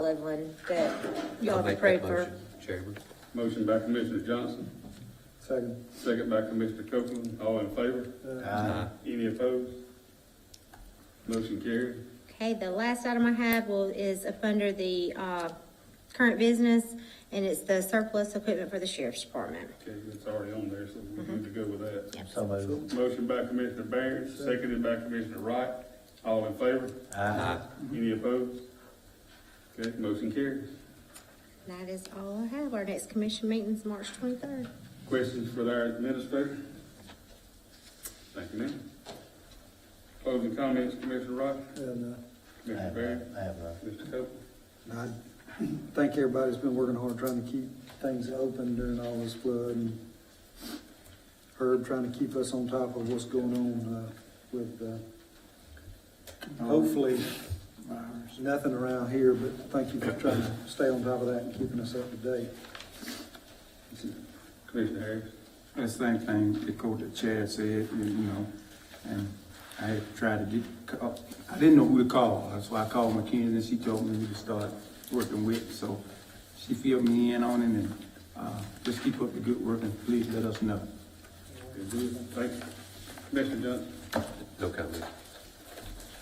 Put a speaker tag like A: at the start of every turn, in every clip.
A: solid one that
B: I'll
A: y'all
B: make
A: approved
B: that
A: for.
B: motion, Chairman.
C: Motion by Commissioner Johnson,
D: Second.
C: second by Commissioner Copeland, all in favor?
B: Aye.
C: Any opposed? Motion carried.
A: Okay, the last item I have will, is up under the, uh, current business, and it's the surplus equipment for the sheriff's department.
C: Okay, it's already on there, so we're good to go with that.
E: So moved.
C: Motion by Commissioner Barron, seconded by Commissioner Wright, all in favor?
E: Aye.
C: Any opposed? Okay, motion carries.
A: That is all I have. Our next commission meeting's March twenty-third.
C: Questions for our administrator? Thank you, ma'am. Closing comments, Commissioner Wright,
D: And, uh,
E: I
C: Commissioner
E: have
C: Barron,
E: none. I have none.
C: Mr. Copeland.
D: and I think everybody's been working hard trying to keep things open during all this flood and Herb trying to keep us on top of what's going on, uh, with, uh, hopefully,
F: Uh,
D: nothing around here, but thank you for trying to stay on top of that and keeping us up to date.
C: Commissioner Harris.
F: The same thing the coach that Chad said, you know, and I tried to get, uh, I didn't know who to call, so I called Mackenzie and she told me who to start working with, so she filled me in on it and, uh, just keep up the good work and please let us know.
C: Okay, good. Thank you. Commissioner Johnson.
B: No comment.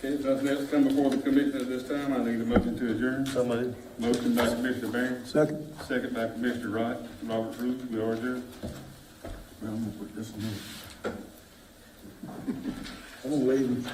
C: Okay, if nothing else come before the commission at this time, I need a motion to adjourn.
E: So moved.
C: Motion by Commissioner Barron,
D: Second.
C: second by Commissioner Wright, Robert Rules, we are adjourned.
F: Well, I'm gonna put this one in.
D: I'm gonna leave.